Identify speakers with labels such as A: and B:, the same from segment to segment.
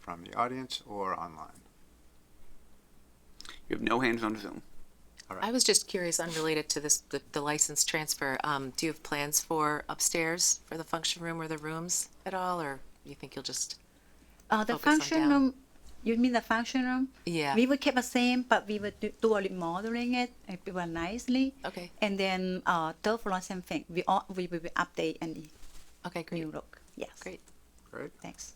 A: from the audience or online?
B: You have no hands on Zoom.
C: I was just curious, unrelated to this, the, the license transfer, um, do you have plans for upstairs for the function room or the rooms at all, or you think you'll just?
D: Uh, the
C: Focus on
D: function
C: down.
D: room, you mean the function room?
C: Yeah.
D: We will keep the same, but we will do, do a remodeling it, uh, do it nicely.
C: Okay.
D: And then uh, third floor, same thing. We all we will update and
C: Okay, great,
D: new look. Yes.
C: great.
A: Great.
D: Thanks.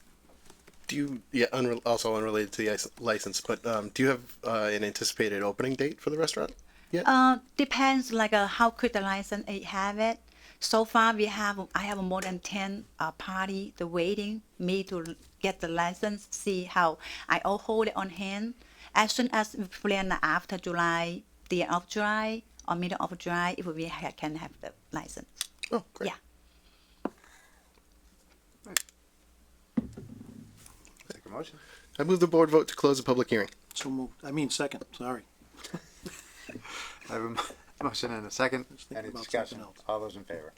E: Do you, yeah, unre- also unrelated to the ice- license, but um, do you have uh, an anticipated opening date for the restaurant? Yeah.
D: Uh, depends like uh, how quick the license it have it. So far, we have I have more than ten uh, party the waiting me to get the license. See how I all hold it on hand. As soon as we plan after July, the end of July or middle of July, if we ha- can have the license.
E: oh, great.
D: Yeah.
A: Take a motion.
E: I move the board vote to close the public hearing.
F: So moved. I mean, second, sorry.
A: I have a mo- motion and a second.
F: thinking
A: Any
F: about
A: discussion?
F: something else.
A: All those in favor?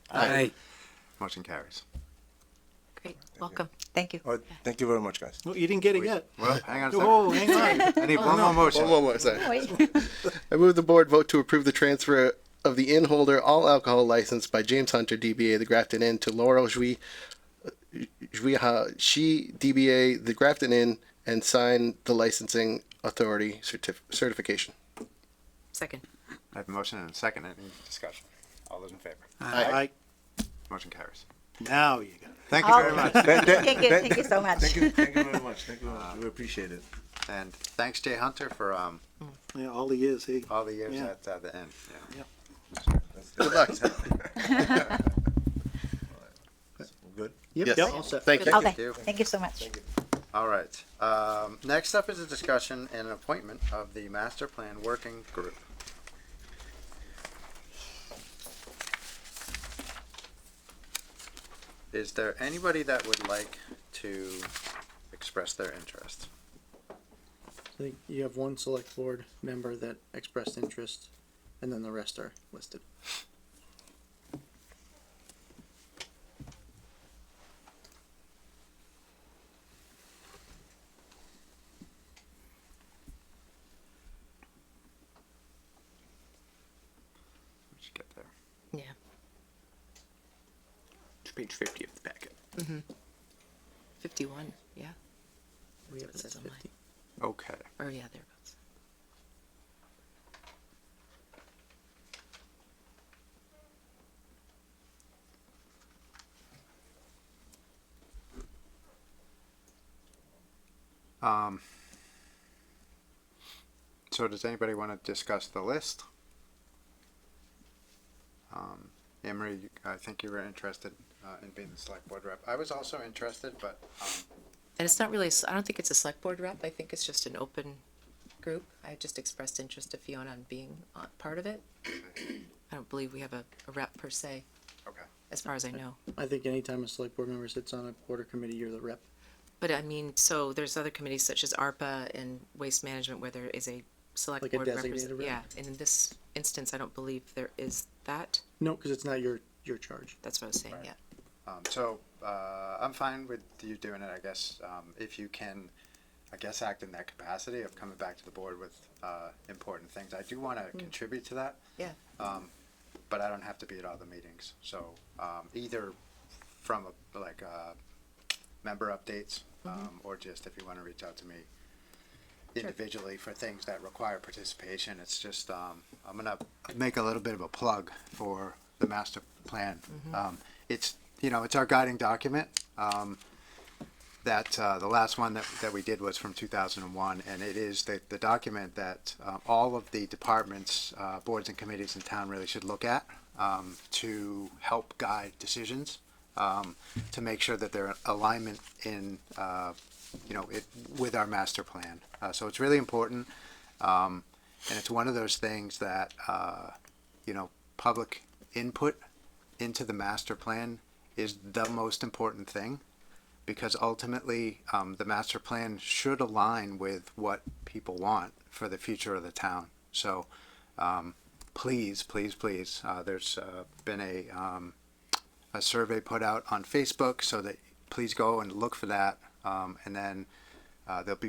A: Motion carries.
C: Great, welcome.
D: Thank you.
G: Oh, thank you very much, guys.
F: No, you didn't get it yet.
A: Well, hang on a
F: Oh,
A: second.
F: hang on.
A: I need one more
E: One
A: motion.
E: more, sorry. I move the board vote to approve the transfer of the inn holder all alcohol license by James Hunter, DBA The Grafton Inn, to Laurel Jui, Jui Ha, she, DBA The Grafton Inn, and sign the licensing authority certif- certification.
C: Second,
A: I have a motion and a second. Any discussion? All those in favor?
F: All right,
A: Motion carries.
F: now you got it.
A: Thank you very much.
G: Oh. Thank you,
D: Thank you. Thank you so much.
G: Thank you, thank you very much. Thank you very much. We appreciate it.
A: And thanks Jay Hunter for, um,
F: Yeah, all the years, he.
A: all the years
F: Yeah.
A: at uh, the end. Yeah.
E: Good luck.
G: Good.
E: Yes.
F: Yep, all set.
E: Thank you.
D: Okay.
A: you.
D: Thank you so much.
A: All right. Um, next up is a discussion and an appointment of the master plan working group. Is there anybody that would like to express their interest?
H: I think you have one select board member that expressed interest, and then the rest are listed.
A: We should get there.
C: yeah.
B: It's page 50 of the packet.
C: Mm-hmm. Fifty-one, yeah,
H: We have it
C: That's
H: at
C: on mine.
H: 50.
A: Okay.
C: or yeah, thereabouts.
A: Um, so does anybody want to discuss the list? Um, Emery, you- I think you were interested uh, in being the select board rep. I was also interested, but
C: And it's not really, a s- I don't think it's a select board rep, I think it's just an open group. I just expressed interest to Fiona on being uh, part of it. I don't believe we have a a rep per se,
A: okay.
C: as far as I know.
H: I think anytime a select board member sits on a board or committee, you're the rep.
C: But I mean, so there's other committees such as ARPA and Waste Management where there is a select
H: Like a
C: board representative.
H: designated rep?
C: Yeah, and in this instance, I don't believe there is that.
H: No, because it's not your, your charge.
C: That's what I was saying, yeah.
A: Um, so uh, I'm fine with you doing it. I guess um, if you can, I guess act in that capacity of coming back to the board with uh, important things. I do want to contribute to that.
C: Yeah.
A: Um, but I don't have to be at all the meetings. So um, either from a, like uh, member updates, um, or just if you want to reach out to me individually for things that require participation. It's just um, I'm gonna make a little bit of a plug for the master plan. Um, it's you know it's our guiding document. Um, that uh, the last one that, that we did was from 2001, and it is the, the document that uh, all of the departments, uh, boards, and committees in town really should look at um, to help guide decisions, um, to make sure that they're in alignment in, uh, you know, it, with our master plan. Uh, so it's really important, um, and it's one of those things that, uh, you know, public input into the master plan is the most important thing because ultimately um, the master plan should align with what people want for the future of the town. So um, please, please, please, uh, there's uh, been a, um, a survey put out on Facebook so that please go and look for that. Um, and then Uh, there'll be